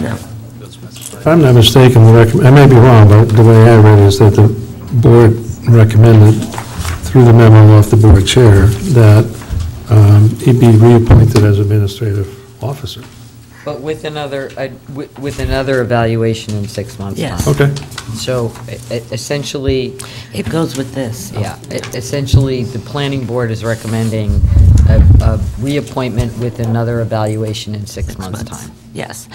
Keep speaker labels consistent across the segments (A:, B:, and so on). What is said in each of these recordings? A: No.
B: If I'm not mistaken, the recomm- I may be wrong, but the way I read it is that the board recommended through the memo off the board chair that um, he be reappointed as administrative officer.
C: But with another, uh, wi- with another evaluation in six months' time.
A: Yes.
B: Okay.
C: So e- e- essentially,
A: It goes with this.
C: yeah, e- essentially, the planning board is recommending a a reappointment with another evaluation in six months' time.
A: Yes.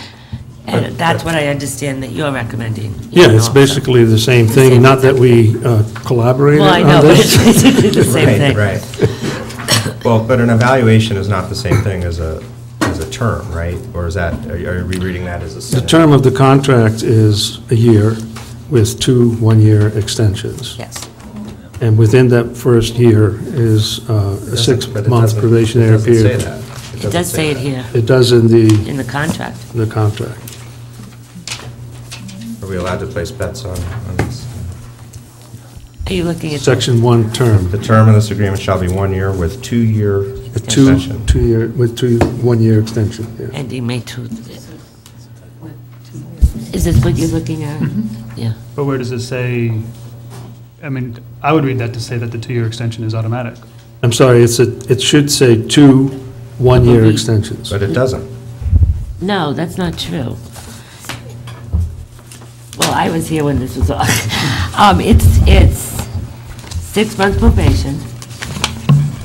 A: And that's what I understand that you're recommending. you
B: Yeah,
A: know,
B: it's
A: also.
B: basically the same thing, not that we uh, collaborated
A: Well, I know,
B: on
A: but it's
B: this.
A: basically the same
D: Right,
A: thing.
D: Right. Well, but an evaluation is not the same thing as a, as a term, right? Or is that, are you are you rereading that as a
B: The
D: sentence?
B: term of the contract is a year with two one-year extensions.
A: Yes.
B: And within that first year is uh,
D: It
B: a
D: doesn't- but it
B: six-month
D: doesn't-
B: probationary period.
D: It doesn't say that.
A: It does say it here
B: It does in the,
A: in the contract.
B: the contract.
D: that. Are we allowed to place bets on, on this?
A: Are you looking at?
B: Section one term,
D: The term of this agreement shall be one year with two-year
B: a two,
D: extension.
B: two-year, with two, one-year extension, yeah.
A: Ending May 2. Is this what you're looking at? Yeah.
E: But where does it say, I mean, I would read that to say that the two-year extension is automatic.
B: I'm sorry, it's a, it should say two one-year
A: Mhm.
B: extensions.
D: But it doesn't.
A: No, that's not true. Well, I was here when this was on. Um, It's, it's six-month probation,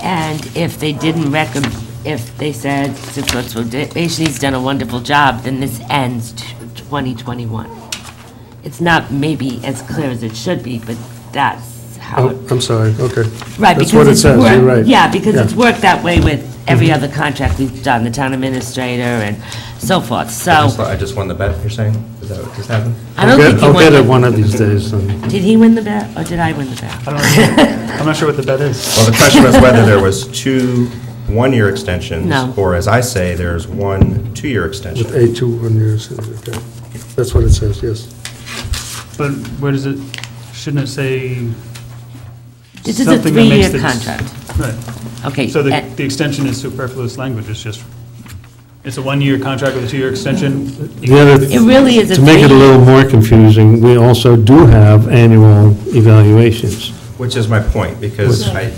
A: and if they didn't recommend, if they said six months probation, he's done a wonderful job, then this ends t- 2021. It's not maybe as clear as it should be, but that's how it
B: Oh, I'm sorry, okay.
A: Right,
B: That's
A: because
B: what it
A: it's
B: says,
A: worked-
B: you're right.
A: Yeah, because it's
B: Yeah. Mm-hmm.
A: worked that way with every other contract we've done, the town administrator and so forth,
D: I
A: so.
D: just- I just won the bet, you're saying? Is that what just happened?
A: I don't
B: I'll
A: think
B: get-
A: he
B: I'll get it
A: won.
B: one of these days, and
A: the- Did he win the bet, or did I win the bet?
E: I don't, know. I'm not sure what the bet is.
D: Well, the question was whether there was two one-year extensions.
A: No.
D: Or as I say, there's one two-year extension.
B: with a two one-year extension, okay. That's what it says, yes.
E: But where does it, shouldn't it say
A: This is a
E: something that makes
A: three-year
E: the-
A: contract.
E: Right.
A: Okay, eh,
E: So the,
A: and-
E: the extension is superfluous language, it's just, it's a one-year contract with a two-year extension.
B: The other,
A: it really is a
B: to make it a
A: three,
B: little more confusing, we also do have annual evaluations.
D: Which is my point, because I,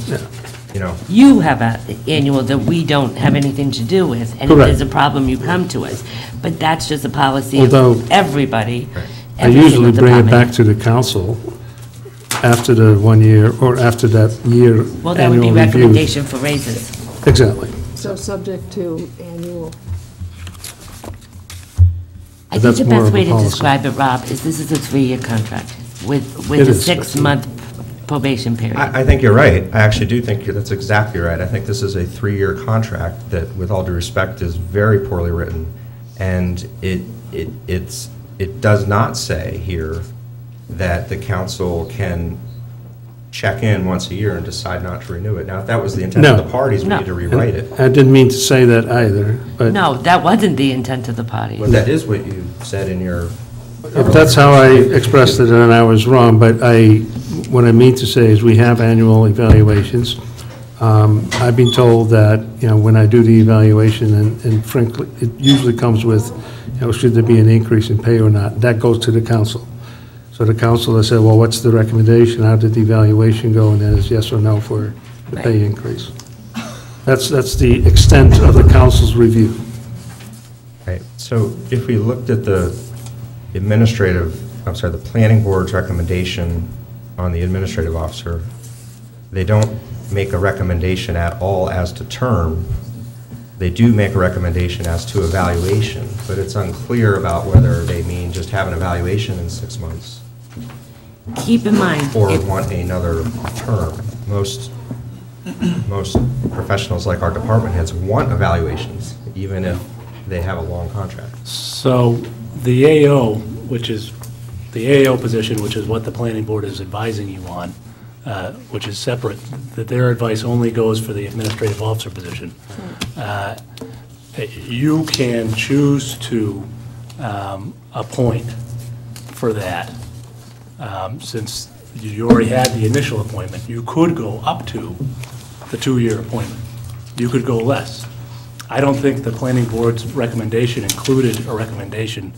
D: you know,
A: you have an annual that we don't have anything to do with, and if
B: Correct.
A: there's a problem, you come to us. But that's just a policy
B: Although-
A: of everybody,
B: I
A: every single
B: usually bring it back
A: department.
B: to the council after the one year, or after that year
A: Well, that would be
B: annual review.
A: recommendation for raises.
B: Exactly.
F: So subject to annual,
A: I think
B: That's
A: the
B: more of
A: best
B: a
A: way to
B: policy.
A: describe it, Rob, is this is a three-year contract with,
B: It
A: with a
B: is.
A: six-month probation period.
D: I, I think you're right. I actually do think you're- that's exactly right. I think this is a three-year contract that, with all due respect, is very poorly written. And it, it, it's, it does not say here that the council can check in once a year and decide not to renew it. Now, if that was the intent of
B: No.
D: the parties, we
A: No.
D: need to rewrite it.
B: I didn't mean to say that either, but
A: No, that wasn't the intent of the party.
D: But that is what you said in your,
B: if that's how I expressed it and I was wrong, but I, what I mean to say is we have annual evaluations. Um, I've been told that, you know, when I do the evaluation, and and frankly, it usually comes with, you know, should there be an increase in pay or not? That goes to the council. So the council has said, well, what's the recommendation? How did the evaluation go? And then it's yes or no for the pay increase. That's, that's the extent of the council's review.
D: right, so if we looked at the administrative, I'm sorry, the planning board's recommendation on the administrative officer, they don't make a recommendation at all as to term. They do make a recommendation as to evaluation, but it's unclear about whether they mean just have an evaluation in six months
A: Keep in mind,
D: or
A: if-
D: want another term. Most, most professionals like our department heads want evaluations, even if they have a long contract.
G: So the AO, which is, the AO position, which is what the planning board is advising you on, uh, which is separate, that their advice only goes for the administrative officer position. Uh, You can choose to um, appoint for that. Um, Since you already had the initial appointment, you could go up to the two-year appointment. You could go less. I don't think the planning board's recommendation included a recommendation